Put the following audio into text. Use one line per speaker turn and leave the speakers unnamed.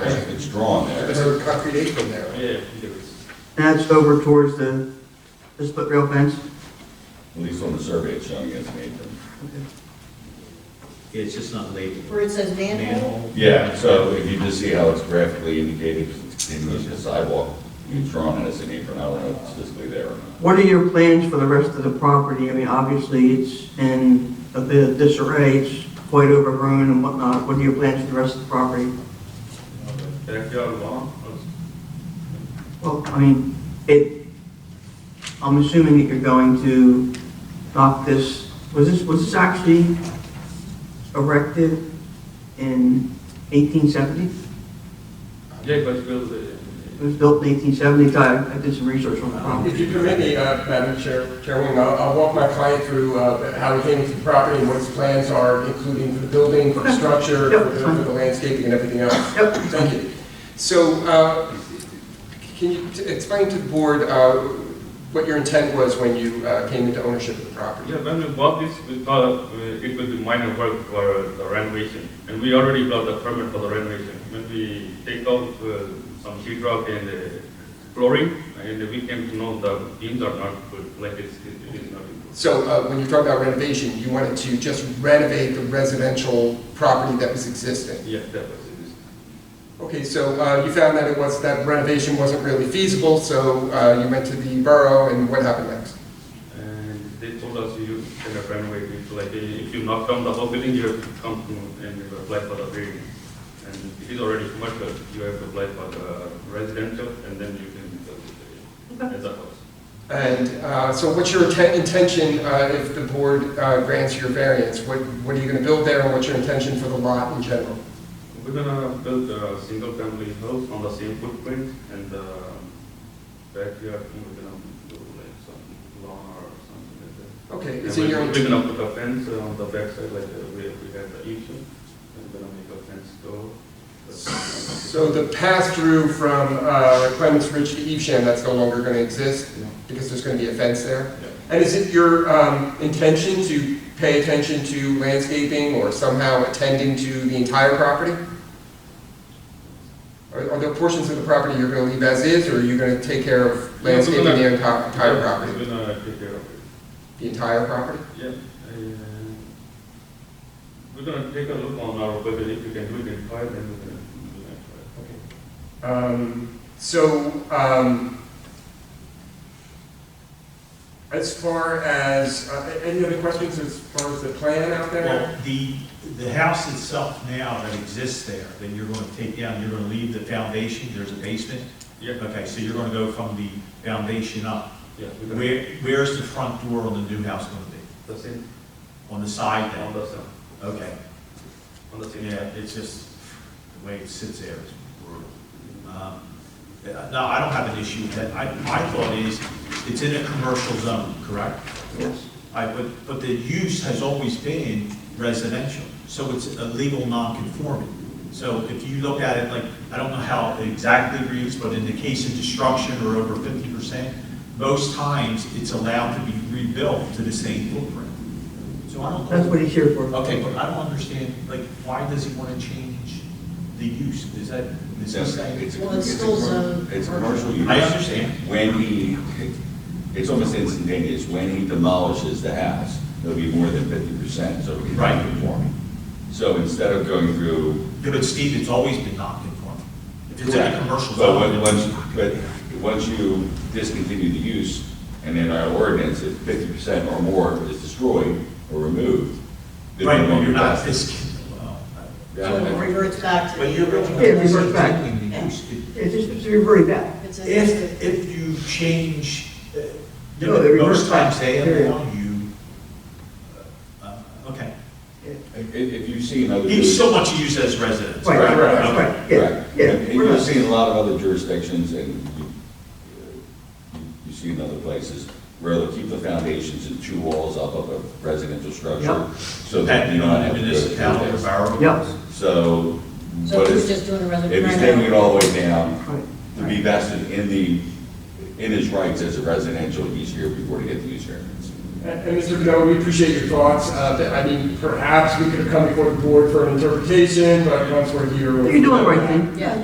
it's drawn
There's
there.
a concrete apron there.
Yeah,
That's over towards the, the split rail fence.
At least on the survey it's showing as an apron.
Yeah, it's just not labeled.
Where it says manhole?
Yeah, so if you just see how it's graphically indicated, it's continuous to the sidewalk, it's drawn as an apron, I don't know if it's physically there or not.
What are your plans for the rest of the property? I mean, obviously, it's in a bit of disarray, it's quite overgrown and whatnot. What are your plans for the rest of the property?
Backyard lawn,
Well, I mean, it, I'm assuming that you're going to knock this, was this, was this actually erected in 1870?
yeah, but build it.
It was built in 1870, I I did some research on the
If
property.
you permit me, uh, Madam Chair- Chairwoman, I'll I'll walk my client through uh, how he came to the property and what his plans are, including for the building, for the structure,
Yep.
for the for the landscaping and everything else.
Yep.
Thank you. So uh, can you t- explain to the board uh, what your intent was when you uh, came into ownership of the property?
Yeah, when we bought this, we thought of, uh, it would be minor work for the renovation, and we already got the permit for the renovation. When we take out uh, some sheet rock and uh, flooring, and we came to know the beams are not good, like it's, it is not good.
So uh, when you talk about renovation, you wanted to just renovate the residential property that was existing?
Yeah, that was it.
Okay, so uh, you found that it was, that renovation wasn't really feasible, so uh, you went to the borough, and what happened next?
And they told us you kind of renovate it, like uh, if you knock down the whole building, you have to come to and apply for the variance. And it is already commercial, you have to apply for the residential and then you can build it uh, as a house.
And uh, so what's your inten- intention uh, if the board uh, grants your variance? What what are you going to build there, and what's your intention for the lot in general?
We're gonna build a single family house on the same footprint and the backyard, we're gonna do like some lawn or something like that.
Okay,
And
is it your,
We're we're gonna put a fence on the backside like uh, we, we had the issue, and we're gonna make a fence door.
so the pass-through from uh, Clements Ridge to Evesham, that's no longer going to exist because there's going to be a fence there?
Yeah.
And is it your um, intention to pay attention to landscaping or somehow attending to the entire property? Are are there portions of the property you're going to leave as is, or are you going to take care of
Yeah, we're
landscaping the
gonna-
enti- entire
Yeah,
property?
We're gonna take care of it.
The entire property?
Yeah, and we're gonna take a look on our budget, if we can do it in five, then we're gonna do that five.
Um, So, um, as far as, uh, any other questions as far as the plan out there?
Well, the, the house itself now that exists there, that you're going to take down, you're going to leave the foundation, there's a basement?
Yeah,
Okay, so you're going to go from the foundation up.
yeah, we're gonna,
Where, where's the front door on the new house going to be?
the same,
On the side
on
then?
the, same-
Okay,
on the same.
yeah, it's just, the way it sits there is brutal. Um, yeah, No, I don't have an issue with that. I, my thought is, it's in a commercial zone, correct?
Yes.
I, but, but the use has always been residential, so it's a legal non-conforming. So if you look at it like, I don't know how it exactly reads, but in the case of destruction or over fifty percent, most times it's allowed to be rebuilt to the same footprint. So I don't.
That's what he's here for.
Okay, but I don't understand, like, why does he want to change the use? Is that, is he saying?
Well, it's still zoned
It's a commercial use.
I understand.
When he, it's almost instantaneous, when he demolishes the house, it'll be more than fifty percent, so it'll be
Right.
non-conforming. So instead of going through.
Yeah, But Steve, it's always been non-conforming. If it's in a commercial
But when-
zone.
once, but once you discontinue the use, and in our ordinance, if fifty percent or more is destroyed or removed. then
Right,
no
but you're not,
longer-
this, well,
So it reverts back to.
But you're really.
Yeah, if you work back.
continuing the use. If-
It's just, it's very bad.
It's a-
If, if you change, uh,
No, they reverse
most times
back,
they
period.
allow you, uh, okay.
If, if you see another.
He's so much used as residence.
Right,
Right,
right,
right,
right, right, yeah,
Correct.
yeah.
And
we're
you've
not-
seen a lot of other jurisdictions and you, uh, you- you see in other places where they'll keep the foundations and two walls up of a residential structure.
Yep.
So that
That,
you
you
don't have
know,
to go
municipality
through
or
this.
borough.
Yep.
So,
So
but
he was
if
just doing a
if he's
residential.
taking it all the way down,
Right.
to be vested in the, in his rights as a residential each year before to get the use variance.
And and Mr. Canoa, we appreciate your thoughts. Uh, that- I mean, perhaps we could have come before the board for an interpretation, but once we're here. we'll-
You're doing the right thing.
Yeah.